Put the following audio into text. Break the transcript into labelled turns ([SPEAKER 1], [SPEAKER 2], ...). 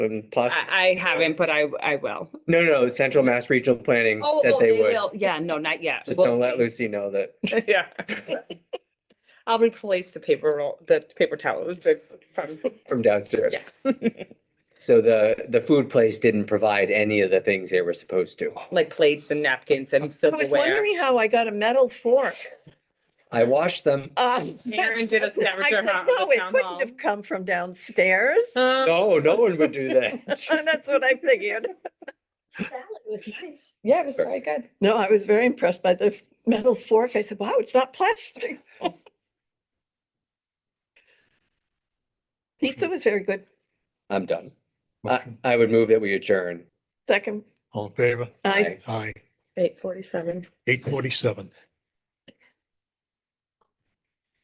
[SPEAKER 1] and plus,
[SPEAKER 2] I, I haven't, but I, I will.
[SPEAKER 1] no, no, Central Mass Regional Planning
[SPEAKER 2] Oh,
[SPEAKER 1] said
[SPEAKER 2] oh,
[SPEAKER 1] they would.
[SPEAKER 2] will. Yeah, no, not yet.
[SPEAKER 1] Just
[SPEAKER 2] We'll
[SPEAKER 1] don't let
[SPEAKER 2] see.
[SPEAKER 1] Lucy know that.
[SPEAKER 2] Yeah. I'll replace the paper roll, the paper towels that's from,
[SPEAKER 1] from downstairs.
[SPEAKER 2] yeah,
[SPEAKER 1] So the, the food place didn't provide any of the things they were supposed to.
[SPEAKER 2] like plates and napkins and
[SPEAKER 3] I was
[SPEAKER 2] silverware.
[SPEAKER 3] wondering how I got a metal fork.
[SPEAKER 1] I washed them.
[SPEAKER 3] Uh,
[SPEAKER 2] Karen did a
[SPEAKER 3] I
[SPEAKER 2] scavenger
[SPEAKER 3] said,
[SPEAKER 2] hunt
[SPEAKER 3] No,
[SPEAKER 2] with the
[SPEAKER 3] it
[SPEAKER 2] town
[SPEAKER 3] couldn't
[SPEAKER 2] hall.
[SPEAKER 3] have come from downstairs.
[SPEAKER 2] Um,
[SPEAKER 1] No, no one would do that.
[SPEAKER 3] That's what I figured.
[SPEAKER 4] Salad was nice.
[SPEAKER 2] Yeah, it was very good.
[SPEAKER 3] No, I was very impressed by the metal fork. I said, wow, it's not plastic. Pizza was very good.
[SPEAKER 1] I'm done. I,
[SPEAKER 5] Motion.
[SPEAKER 1] I would move that we adjourn.
[SPEAKER 3] Second,
[SPEAKER 5] All in favor?
[SPEAKER 3] I
[SPEAKER 1] Aye.
[SPEAKER 5] Aye.
[SPEAKER 2] Eight forty-seven.
[SPEAKER 5] Eight forty-seven.